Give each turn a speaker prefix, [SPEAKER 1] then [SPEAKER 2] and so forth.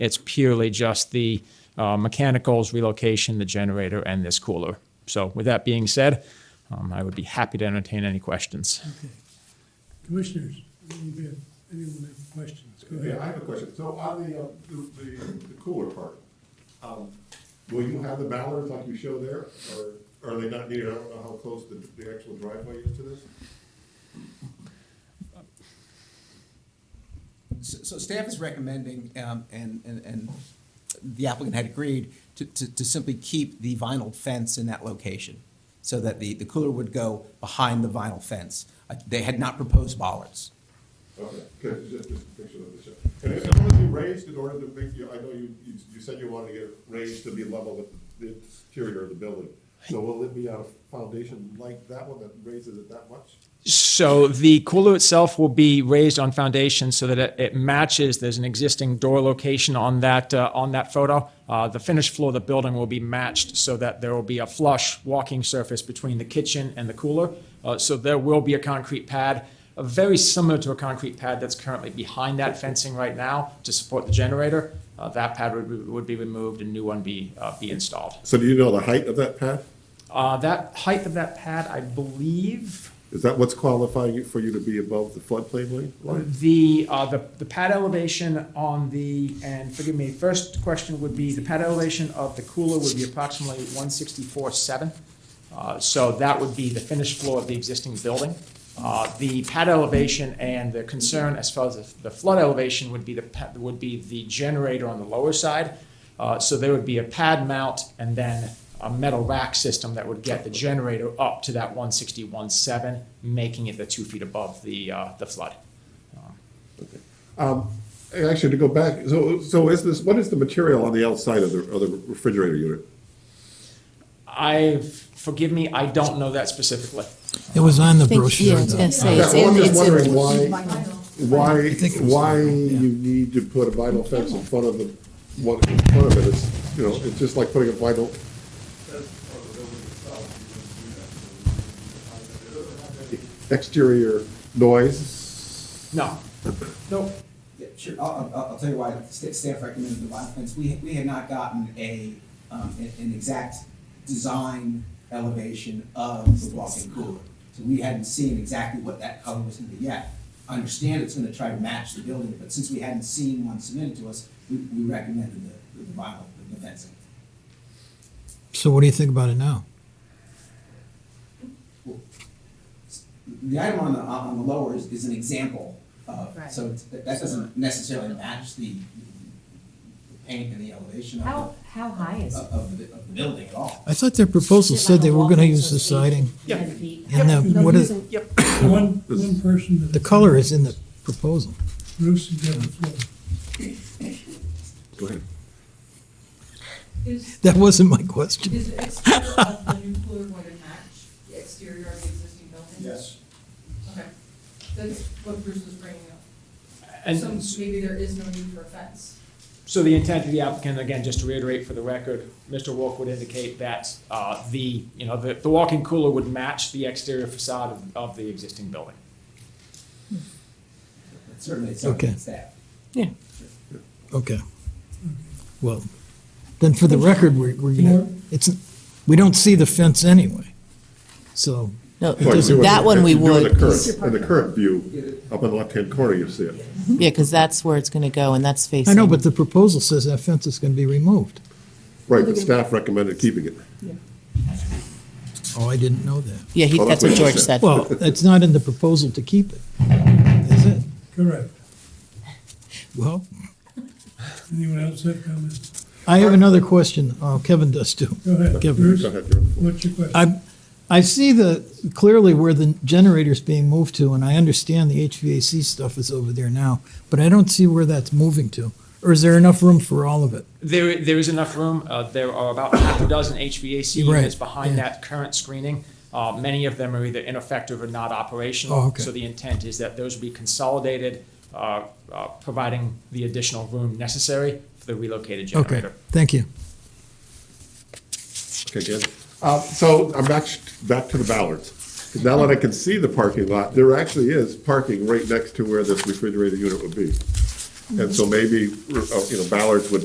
[SPEAKER 1] It's purely just the uh, mechanicals, relocation, the generator, and this cooler. So with that being said, um, I would be happy to entertain any questions.
[SPEAKER 2] Commissioners, anybody have- anyone have questions? Go
[SPEAKER 3] Yeah, I
[SPEAKER 2] ahead.
[SPEAKER 3] have a question. So on the, uh, the, the- the cooler part, um, will you have the ballards like you show there? Or are they not needed? I don't know how close the, the actual driveway is to this.
[SPEAKER 4] So so staff is recommending, um, and, and, and the applicant had agreed to, to, to simply keep the vinyl fence in that location so that the, the cooler would go behind the vinyl fence. Uh, They had not proposed bollards.
[SPEAKER 3] Okay, good, just, just a picture of the show. And if it you raised in order to make, you, I know you, you you said you wanted to get it raised to be level with the exterior of the building. So will it be on a foundation like that one that raises it that much?
[SPEAKER 1] So the cooler itself will be raised on foundation so that it, it matches. There's an existing door location on that uh, on that photo. Uh, the finished floor of the building will be matched so that there will be a flush walking surface between the kitchen and the cooler. Uh, so there will be a concrete pad, uh, very similar to a concrete pad that's currently behind that fencing right now to support the generator. Uh, that pad would, be- would be removed and new one be uh, be installed.
[SPEAKER 3] So do you know the height of that pad?
[SPEAKER 1] Uh, that height of that pad, I believe.
[SPEAKER 3] Is that what's qualifying you for you to be above the floodplain line?
[SPEAKER 1] The, uh, the, the pad elevation on the, and forgive me, first question would be, the pad elevation of the cooler would be approximately one sixty-four seven. Uh, so that would be the finished floor of the existing building. Uh, the pad elevation and the concern as far as the- the flood elevation would be the, pa- would be the generator on the lower side. Uh, so there would be a pad mount and then a metal rack system that would get the generator up to that one sixty-one seven, making it the two feet above the, uh, the flood.
[SPEAKER 3] Um, Actually, to go back, so, so is this, what is the material on the outside of the, of the refrigerator unit?
[SPEAKER 1] I forgive me, I don't know that specifically.
[SPEAKER 5] It was on the
[SPEAKER 6] think- yeah,
[SPEAKER 5] brochure.
[SPEAKER 6] I was
[SPEAKER 5] though.
[SPEAKER 6] gonna say,
[SPEAKER 3] Yeah,
[SPEAKER 6] it's
[SPEAKER 3] well,
[SPEAKER 6] in-
[SPEAKER 3] I'm just
[SPEAKER 6] it's
[SPEAKER 3] wondering
[SPEAKER 6] in-
[SPEAKER 3] why, why,
[SPEAKER 5] think it was
[SPEAKER 3] why
[SPEAKER 5] vinyl, yeah.
[SPEAKER 3] you need to put a vinyl fence in front of the, what, in front of it, it's, you know, it's just like putting a vinyl. Exterior noise,
[SPEAKER 1] No. No.
[SPEAKER 4] Yeah, sure. I'll, I'll, I'll tell you why sta- staff recommended the vinyl fence. We, we had not gotten a, um, an, an exact design elevation of the walk-in cooler. So we hadn't seen exactly what that color was gonna be yet. I understand it's gonna try to match the building, but since we hadn't seen one submitted to us, we, we recommended the, the vinyl, the fencing.
[SPEAKER 5] So what do you think about it now?
[SPEAKER 4] The item on the, on the lower is, is an example of,
[SPEAKER 6] Right.
[SPEAKER 4] so it's- that that doesn't necessarily match the the paint and the elevation of
[SPEAKER 7] How, how high is
[SPEAKER 4] the,
[SPEAKER 7] it?
[SPEAKER 4] of the, of the building at all.
[SPEAKER 5] I thought their proposal said they were gonna use the siding,
[SPEAKER 7] Ten feet.
[SPEAKER 5] and the, what is,
[SPEAKER 2] The One, one person that.
[SPEAKER 5] the color is in the proposal.
[SPEAKER 2] Bruce has got the floor.
[SPEAKER 3] go ahead.
[SPEAKER 8] Is,
[SPEAKER 5] That wasn't my question.
[SPEAKER 8] is the exterior of the new cooler going to match the exterior of the existing building? Okay, that's what Bruce was bringing up. So
[SPEAKER 1] And
[SPEAKER 8] maybe there is no need for a fence.
[SPEAKER 1] so the intent of the applicant, again, just to reiterate for the record, Mr. Wolf would indicate that uh, the, you know, the, the walk-in cooler would match the exterior facade of, of the existing building.
[SPEAKER 4] But Certainly, it's something
[SPEAKER 5] Okay.
[SPEAKER 4] that's that.
[SPEAKER 5] Okay. Well, then for the record, we're, we're gonna, it's, we don't see the fence anyway. So,
[SPEAKER 6] No,
[SPEAKER 3] Well, you do it-
[SPEAKER 6] that one we
[SPEAKER 3] you do it
[SPEAKER 6] would,
[SPEAKER 3] In the
[SPEAKER 6] 'cause-
[SPEAKER 3] current, in the current view, up in the left-hand corner, you see it.
[SPEAKER 6] yeah, because that's where it's going to go, and that's facing.
[SPEAKER 5] I know, but the proposal says that fence is gonna be removed.
[SPEAKER 3] Right, but staff recommended keeping it.
[SPEAKER 5] Oh, I didn't know that.
[SPEAKER 6] Yeah, he-
[SPEAKER 3] Oh,
[SPEAKER 6] that's what George said.
[SPEAKER 5] Well, it's not in the proposal to keep it, is it?
[SPEAKER 2] Correct.
[SPEAKER 5] Well,
[SPEAKER 2] Anyone else have comments?
[SPEAKER 5] I have another question. Oh, Kevin does too.
[SPEAKER 2] Go ahead,
[SPEAKER 5] Kevin.
[SPEAKER 2] Bruce,
[SPEAKER 3] Go ahead, you're on the floor.
[SPEAKER 2] what's your question?
[SPEAKER 5] I, I see the, clearly where the generator's being moved to, and I understand the HVAC stuff is over there now, but I don't see where that's moving to. Or is there enough room for all of it?
[SPEAKER 1] There, there is enough room. Uh, there are about half a dozen HVAC
[SPEAKER 5] Right,
[SPEAKER 1] units behind
[SPEAKER 5] yeah.
[SPEAKER 1] that current screening. Uh, many of them are either ineffective or not operational.
[SPEAKER 5] Oh, okay.
[SPEAKER 1] So the intent is that those will be consolidated, uh, uh, providing the additional room necessary for the relocated
[SPEAKER 5] Okay,
[SPEAKER 1] generator.
[SPEAKER 5] thank you.
[SPEAKER 3] Okay, good. Uh, So I'm back, back to the Ballards. Now that I can see the parking lot, there actually is parking right next to where this refrigerator unit would be. And so maybe, uh, you know, Ballards would